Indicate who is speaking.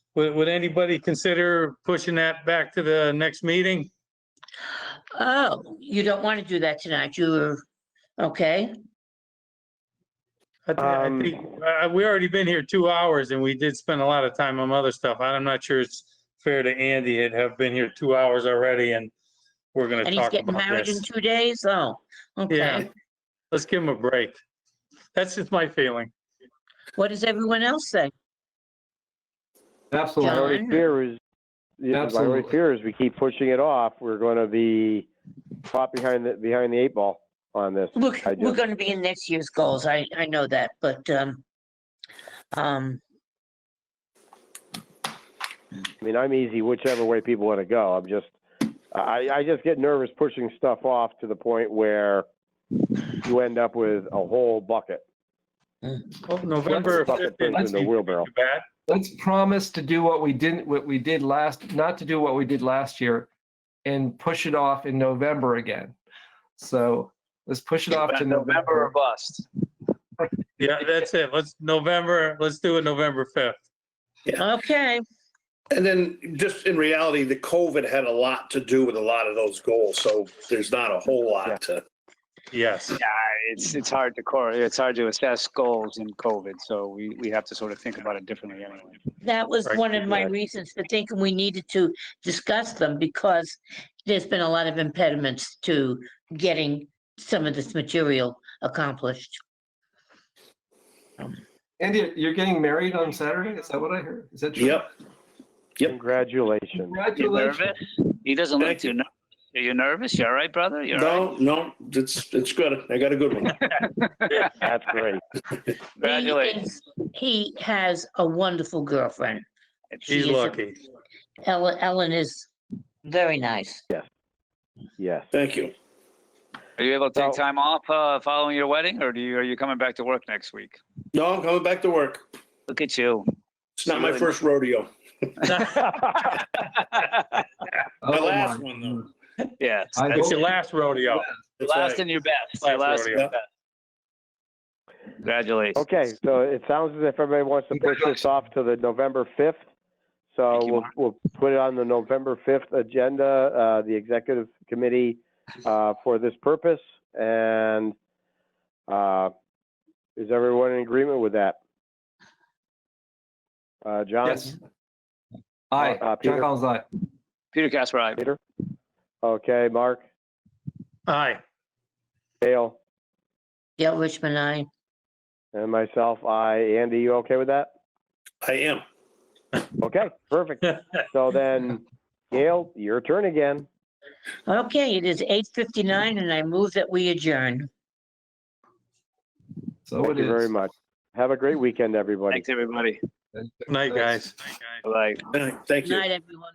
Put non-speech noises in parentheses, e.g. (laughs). Speaker 1: Would, would anybody consider pushing that back to the next meeting?
Speaker 2: Oh, you don't want to do that tonight. You were, okay,
Speaker 1: I thi- I
Speaker 3: Um,
Speaker 1: think, uh, we already been here two hours and we did spend a lot of time on other stuff. I'm not sure it's fair to Andy. It have been here two hours already and we're gonna
Speaker 2: and he's
Speaker 1: talk
Speaker 2: getting
Speaker 1: about
Speaker 2: married in
Speaker 1: this.
Speaker 2: two days? Oh,
Speaker 1: Yeah,
Speaker 2: okay.
Speaker 1: let's give him a break. That's just my feeling.
Speaker 2: What does everyone else say?
Speaker 3: My
Speaker 2: John?
Speaker 4: Absolutely.
Speaker 3: only fear is, yeah, my only
Speaker 4: Absolutely.
Speaker 3: fear is we keep pushing it off, we're gonna be caught behind the, behind the eight ball on this.
Speaker 2: Look,
Speaker 3: I
Speaker 2: we're
Speaker 3: do.
Speaker 2: gonna be in next year's goals. I, I know that, but, um, um,
Speaker 3: I mean, I'm easy whichever way people wanna go, I'm just, I, I just get nervous pushing stuff off to the point where you end up with a whole bucket.
Speaker 1: Well, November 5th.
Speaker 3: Bucket pins
Speaker 1: isn't
Speaker 3: in the
Speaker 1: too
Speaker 3: wheelbarrow.
Speaker 1: bad.
Speaker 4: Let's promise to do what we didn't, what we did last, not to do what we did last year and push it off in November again. So let's push it off to
Speaker 5: November or
Speaker 4: November.
Speaker 5: bust.
Speaker 1: Yeah, that's it. Let's, November, let's do it November 5th.
Speaker 2: okay,
Speaker 6: And then just in reality, the COVID had a lot to do with a lot of those goals, so there's not a whole
Speaker 3: Yeah.
Speaker 6: lot to.
Speaker 1: Yes.
Speaker 5: Yeah, it's, it's hard to core, it's hard to assess goals in COVID, so we, we have to sort of think about it differently anyway.
Speaker 2: that was
Speaker 1: Right,
Speaker 2: one of my
Speaker 3: right.
Speaker 2: reasons for thinking we needed to discuss them because there's been a lot of impediments to getting some of this material accomplished.
Speaker 4: Andy, you're getting married on Saturday? Is that what I heard? Is that true?
Speaker 6: Yep, Yep.
Speaker 3: Congratulations.
Speaker 5: You
Speaker 4: Congratulations.
Speaker 5: nervous? He doesn't look
Speaker 6: Thank
Speaker 5: too nervous. Are you nervous? You all right, brother? You all right?
Speaker 6: no, no, it's, it's good. I got a good one.
Speaker 3: That's great.
Speaker 2: He
Speaker 5: Congratulations.
Speaker 2: is- He has a wonderful girlfriend.
Speaker 1: She's
Speaker 2: She is a-
Speaker 1: lucky.
Speaker 2: Ellen, Ellen is very nice.
Speaker 3: Yes.
Speaker 6: Thank you.
Speaker 5: Are you able to take
Speaker 3: So-
Speaker 5: time off, uh, following your wedding, or do you, are you coming back to work next week?
Speaker 6: No, I'm coming back to work.
Speaker 5: Look at you.
Speaker 6: It's not my first rodeo.
Speaker 4: Oh
Speaker 6: My last
Speaker 4: my God.
Speaker 6: one, though.
Speaker 5: Yes,
Speaker 4: I
Speaker 5: that's
Speaker 1: It's your last rodeo.
Speaker 5: your
Speaker 6: That's
Speaker 5: last
Speaker 6: right.
Speaker 5: and your best.
Speaker 1: Last
Speaker 5: Your last and
Speaker 1: rodeo.
Speaker 5: your best. Congratulations.
Speaker 3: Okay, so it sounds as if everybody wants to push this off to the November 5th. So
Speaker 5: Thank you,
Speaker 3: we'll,
Speaker 5: Mark.
Speaker 3: we'll put it on the November 5th agenda, uh, the executive committee, uh, for this purpose. And, uh, is everyone in agreement with that? Uh, John?
Speaker 4: Yes. Aye,
Speaker 3: Uh, Peter?
Speaker 4: John Collins, aye.
Speaker 5: Peter Casper, aye.
Speaker 3: Okay, Mark,
Speaker 1: Aye.
Speaker 3: Dale,
Speaker 2: Yeah, Richmond, I,
Speaker 3: and myself, I, Andy, you okay with that?
Speaker 6: I am.
Speaker 3: Okay,
Speaker 4: (laughs)
Speaker 3: perfect. So then, Gail, your turn again.
Speaker 2: okay, it is eight fifty-nine and I move that we adjourn.
Speaker 4: So
Speaker 3: Thank
Speaker 4: it
Speaker 3: you very
Speaker 4: is.
Speaker 3: much. Have a great weekend, everybody.
Speaker 5: Thanks, everybody.
Speaker 1: Night, guys.
Speaker 5: Bye.
Speaker 6: Thank you.
Speaker 2: Night, everyone.